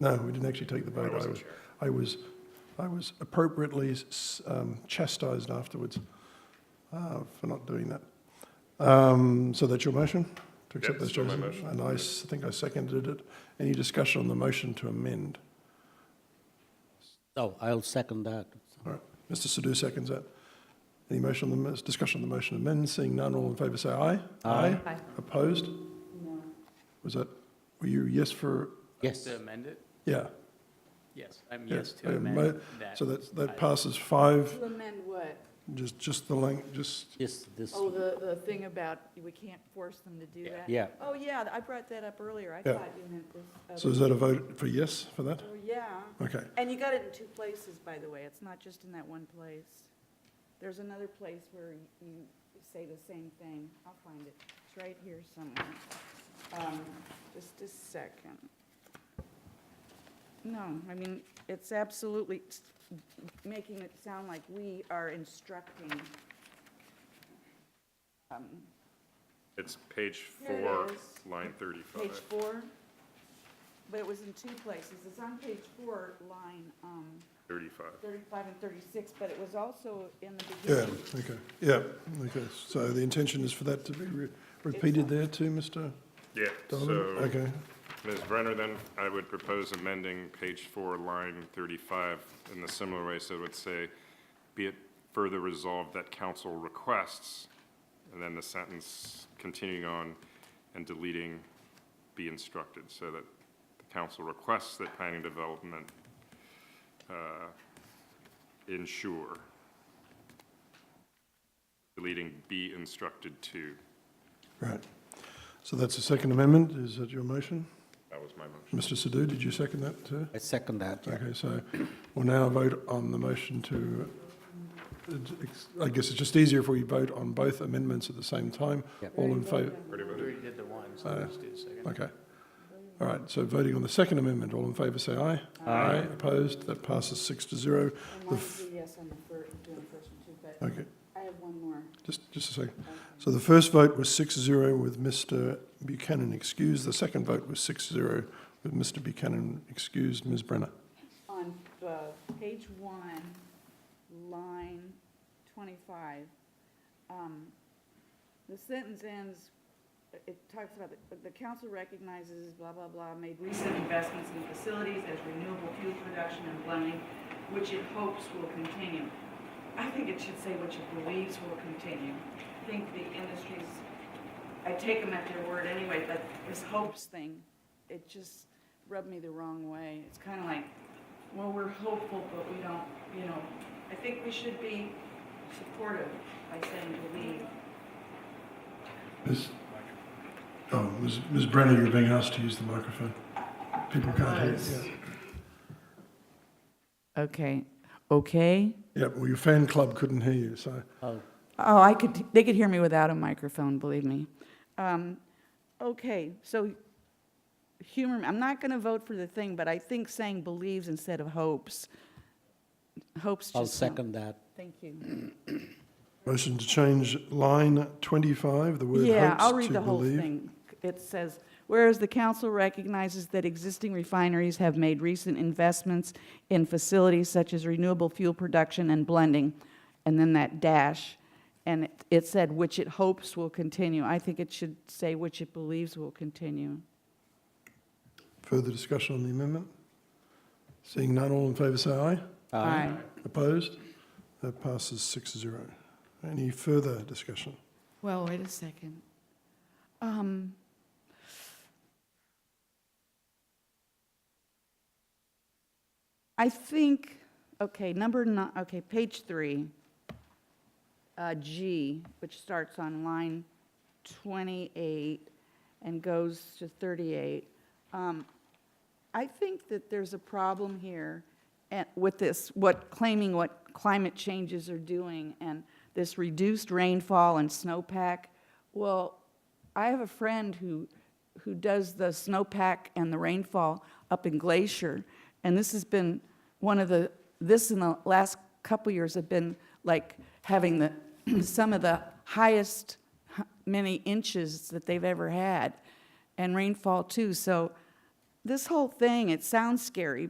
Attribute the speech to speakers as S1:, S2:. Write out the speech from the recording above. S1: No, we didn't actually take the vote.
S2: wasn't
S1: was,
S2: sure.
S1: I was, I was appropriately s- um, chastised afterwards uh, for not doing that. Um, so that's your motion to accept
S2: Yep,
S1: those
S2: still my
S1: changes,
S2: motion.
S1: and I s- think I seconded it. Any discussion on the motion to amend?
S3: Oh, I'll second that.
S1: All right, Mr. Sadoo seconds that. Any motion on the, mo- discussion on the motion to amend? Seeing none, all in favour say aye. Aye.
S4: Aye.
S1: Opposed? No. Was that, were you yes for,
S3: Yes,
S5: To amend it?
S1: yeah?
S5: Yes, I'm
S1: Yeah,
S5: yes
S1: I
S5: to
S1: am
S5: amend
S1: mo-
S5: that.
S1: So that's, that
S5: item.
S1: passes five,
S4: To amend what?
S1: just, just the length, just,
S3: yes, this,
S4: Oh, the, the thing about we can't force them to do
S5: Yeah.
S4: that?
S3: yeah.
S4: Oh, yeah, I brought that up earlier. I
S1: Yeah.
S4: thought you meant this.
S1: so is that a vote for yes for that?
S4: Oh, Yeah,
S1: Okay,
S4: and you got it in two places, by the way. It's not just in that one place. There's another place where you say the same thing. I'll find it. It's right here somewhere. Um, Just a second. No, I mean, it's absolutely s- making it sound like we are instructing. um,
S2: It's page
S4: Here it
S2: four,
S4: is.
S2: line
S4: Page
S2: thirty-five.
S4: four, but it was in two places. It's on page four, line um,
S2: Thirty-five.
S4: 35 and 36, but it was also in the
S1: yeah,
S4: beginning.
S1: okay, yeah, okay. So the intention is for that to be re- repeated there too, Mr.
S2: Yeah,
S1: Donovan?
S2: so,
S1: Okay,
S2: Ms. Brenner, then I would propose amending page four, line thirty-five in the similar way, so it would say, be it further resolved that council requests, and then the sentence continuing on and deleting be instructed, so that the council requests that planning development, uh, ensure. Deleting be instructed to,
S1: right. So that's the second amendment, is that your motion?
S2: that was my motion.
S1: Mr. Sadoo, did you second that too?
S3: I second that. yeah.
S1: Okay, so we'll now vote on the motion to, I guess it's just easier if we vote on both amendments at the same time.
S3: Yep.
S1: All in favor?
S2: Pretty
S5: We already did the one, so
S1: Uh,
S5: let's do the second.
S1: Okay. All right, so voting on the second amendment, all in favor say aye. Aye. Opposed, that passes six to zero.
S4: I wanted to do yes on the first, doing the first one too, but
S1: Okay,
S4: I have one more.
S1: just, just a second. So the first vote was six zero with Mr. Buchanan excused. The second vote was six zero with Mr. Buchanan excused. Ms. Brenner?
S4: On uh, page one, line 25, um, the sentence ends, it talks about, the- the council recognizes blah, blah, blah, made recent investments in facilities as renewable fuel production and blending, which it hopes will continue. I think it should say which it believes will continue. I think the industry's, I take them at their word anyway, but this hopes thing, it just rubbed me the wrong way. It's kind of like, well, we're hopeful, but we don't, you know, I think we should be supportive by saying believe.
S1: Ms. Oh, Ms. Ms. Brenner, you're being asked to use the microphone. People can't hear. you.
S4: Okay, okay.
S1: Yeah, well, your fan club couldn't hear you, so.
S3: Oh,
S4: Oh, I could, they could hear me without a microphone, believe me. Um, okay, so humor, me. I'm not going to vote for the thing, but I think saying believes instead of hopes. Hopes just.
S3: I'll
S4: sound-
S3: second that.
S4: Thank you.
S1: Motion to change line 25, the word hopes to believe.
S4: Yeah, I'll read the whole thing. It says, whereas the council recognizes that existing refineries have made recent investments in facilities such as renewable fuel production and blending, and then that dash, and it- it said, which it hopes will continue. I think it should say, which it believes will continue.
S1: Further discussion on the amendment? Seeing none, all in favour say aye.
S4: Aye.
S1: Opposed? That passes 6-0. Any further discussion?
S4: Well, wait a second. Um, I think, okay, number nine, okay, page three, uh, G, which starts on line 28 and goes to 38. Um, I think that there's a problem here at- with this, what, claiming what climate changes are doing and this reduced rainfall and snowpack. Well, I have a friend who, who does the snowpack and the rainfall up in Glacier, and this has been one of the, this in the last couple years have been like having the, some of the highest h- many inches that they've ever had, and rainfall too. So this whole thing, it sounds scary,